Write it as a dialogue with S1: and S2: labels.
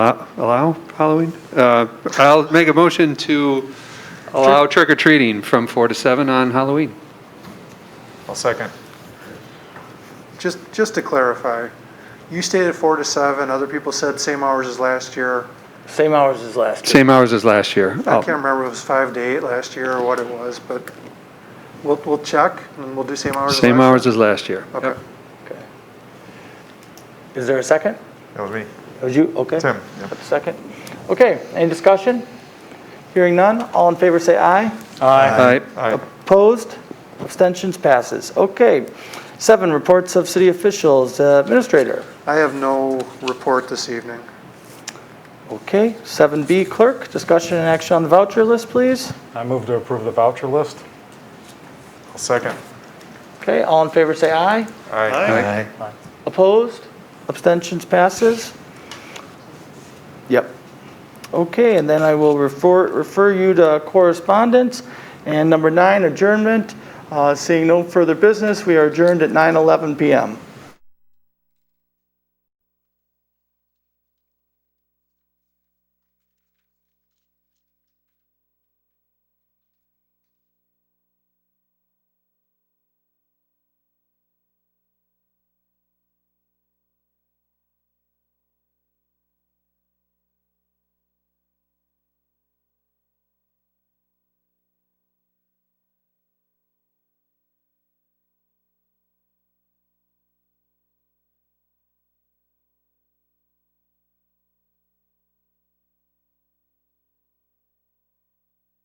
S1: Uh, Allow Halloween? Uh, I'll make a motion to allow trick or treating from 4 to 7 on Halloween.
S2: I'll second.
S3: Just, just to clarify, you stated four to seven, other people said same hours as last year.
S4: Same hours as last year.
S1: Same hours as last year.
S3: I
S2: Oh.
S3: can't remember if it was five to eight last year or what it was, but we'll, we'll check and we'll do same hours. as
S1: Same
S3: last
S1: hours as last year.
S3: year. Okay.
S4: Okay. Is there a second?
S2: That was me.
S4: Was you, okay?
S2: Tim, yeah.
S4: That's a Second. Okay, any discussion? Hearing none, all in favor say aye. Aye.
S1: All right.
S2: Aye.
S4: Opposed? Abstentions passes. Okay. Seven, reports of city officials, Uh, administrator.
S3: I have no report this evening.
S4: Okay, 7B clerk, discussion and action on the voucher list, please.
S5: I move to approve the voucher list.
S2: I'll second.
S4: Okay, all in favor say aye.
S2: Aye.
S4: Opposed? Abstentions passes? Yep. Okay, and then I will refer, refer you to correspondence. And number nine, adjournment. Uh, Seeing no further business, we are adjourned at 9:11 PM.